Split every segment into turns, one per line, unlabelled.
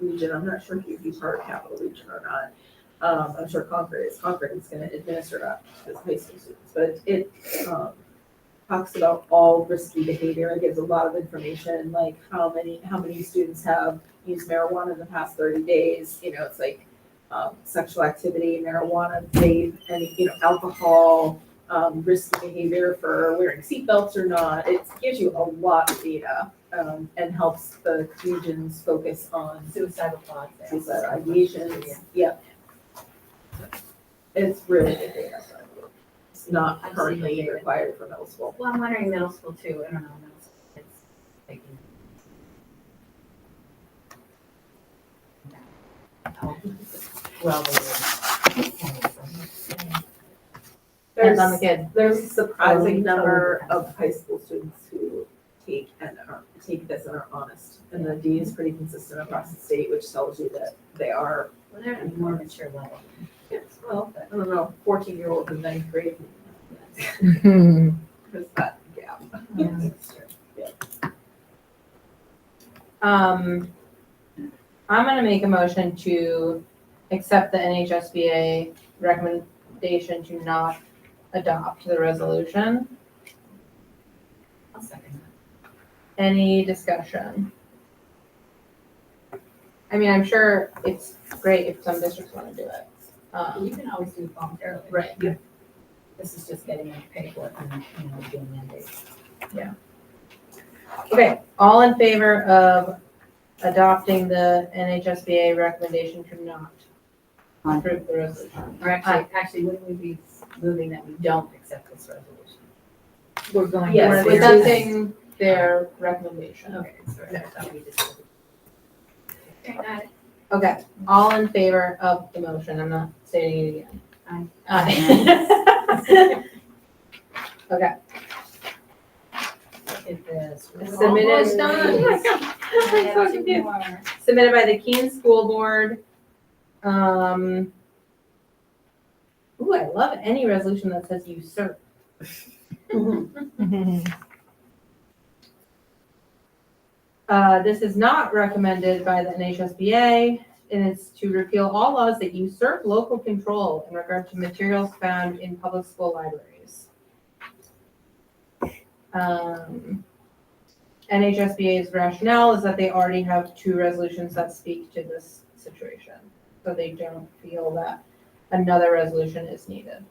Region, I'm not sure if you'd be part of Capital Region or not. Um, I'm sure Concord is, Concord is gonna administer that to the high school students, but it, um, talks about all risky behavior, it gives a lot of information, like how many, how many students have used marijuana in the past thirty days, you know, it's like, um, sexual activity, marijuana, vape, and, you know, alcohol, um, risky behavior for wearing seatbelts or not, it gives you a lot of data um, and helps the regions focus on
Suicidal thoughts. uh,
suicide ideations. Yep. It's really good data. so It's not
I've seen
currently
it.
required for middle school.
Well, I'm wondering middle school too, I don't know, middle school, it's like. How Well, they were.
There's,
Depends on the kid.
there's a surprising
Totally,
number
totally.
of high school students who take and are, take this and are honest. And the D is pretty consistent across the state, which tells you that they are,
Well, they're at a more mature level.
well, I don't know, fourteen year old in ninth grade. There's that gap.
Um, I'm gonna make a motion to accept the NHSBA recommendation to not adopt the resolution.
I'll second
Any discussion? I mean, I'm sure it's great if some districts wanna do it.
that. You
Um,
can always do it voluntarily.
Right.
This is just getting them paid for it and, you know, doing mandates.
Okay, all in favor of adopting the NHSBA recommendation to not approve the resolution?
Or actually, actually, wouldn't we be moving that we don't accept this resolution? We're going.
Yes,
We're
we're
accepting their recommendation.
Okay, sorry, I thought we just. Okay,
Okay, all in favor of the motion, I'm not stating it again.
Aye.
Aye. Okay,
Look at this. We're
Submitted.
almost done.
Oh my
We have
so
two
confused.
more.
submitted by the Keene School Board. Um. Ooh, I love any resolution that says usurp. Uh, this is not recommended by the NHSBA, and it's to repeal all laws that usurp local control in regard to materials found in public school libraries. Um, NHSBA's rationale is that they already have two resolutions that speak to this situation, so they don't feel that another resolution is needed.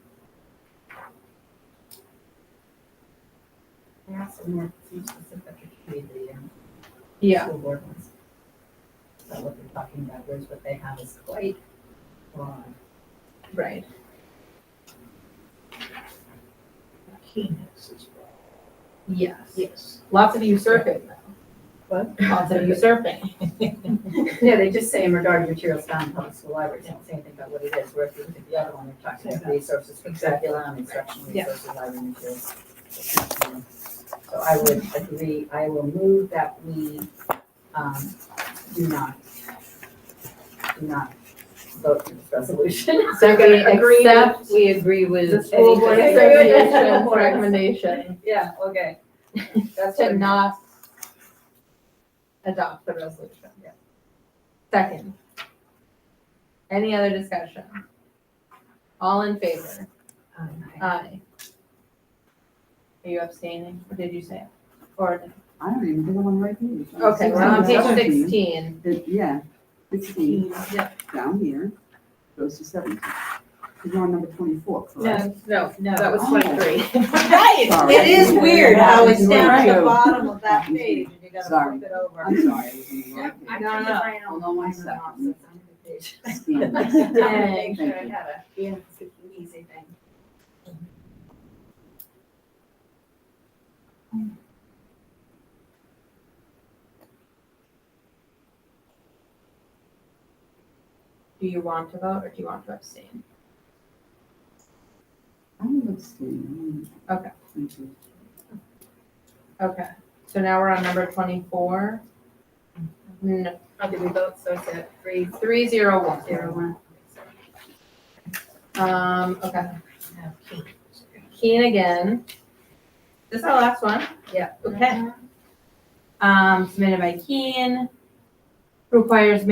There are some more too specific, if you read the, um, School board ones. So um, what they're talking about, whereas what they have is quite broad.
Right.
Keenness as well.
Yes.
Yes.
Lots of usurping, though.
What?
Lots of usurping.
Yeah, they just say in regard to materials found in public school libraries, they don't say anything about what it is, where if you look at the other one, they're talking about resources, for curriculum, instruction
Yeah.
resources, library materials. So I would agree, I will move that we, um, do not, do not vote for this resolution.
So
We're gonna agree
we accept
We agree with.
the school board
any-
association's recommendation
Yeah, okay. That's what
to
I'm-
not adopt the resolution.
Yeah.
Second. Any other discussion? All in favor?
Um, I-
Aye. Are you abstaining? Or did you say it? Or,
I don't even think I'm on the right page.
okay, we're on page
17.
sixteen.
It- Yeah, sixteen,
Yeah.
down here, goes to seventeen. You're on number twenty-four, correct?
No, no,
No.
that was
Oh.
twenty-three.
Right,
Sorry.
it is weird how it's
You
down at
were
the
right.
bottom of that page and you gotta
Sorry.
flip it over.
I'm sorry, I was on the
Yeah,
wrong
I
page.
think
No, no.
if I am-
Hold on one
I'm not,
second.
so I'm the page.
Sixteen.
I'm gonna
Dang.
make sure I
Thank you.
have a, yeah, it's an easy thing.
Do you want to vote or do you want to abstain?
I'm abstaining.
Okay.
Thank you.
Okay, so now we're on number twenty-four. No,
Oh, did we vote, so it's at three,
three zero one.
zero, one?
Um, okay.
No, Keith.
Keen again. This is our last one?
Yeah.
Okay. Um, submitted by Keen. Requires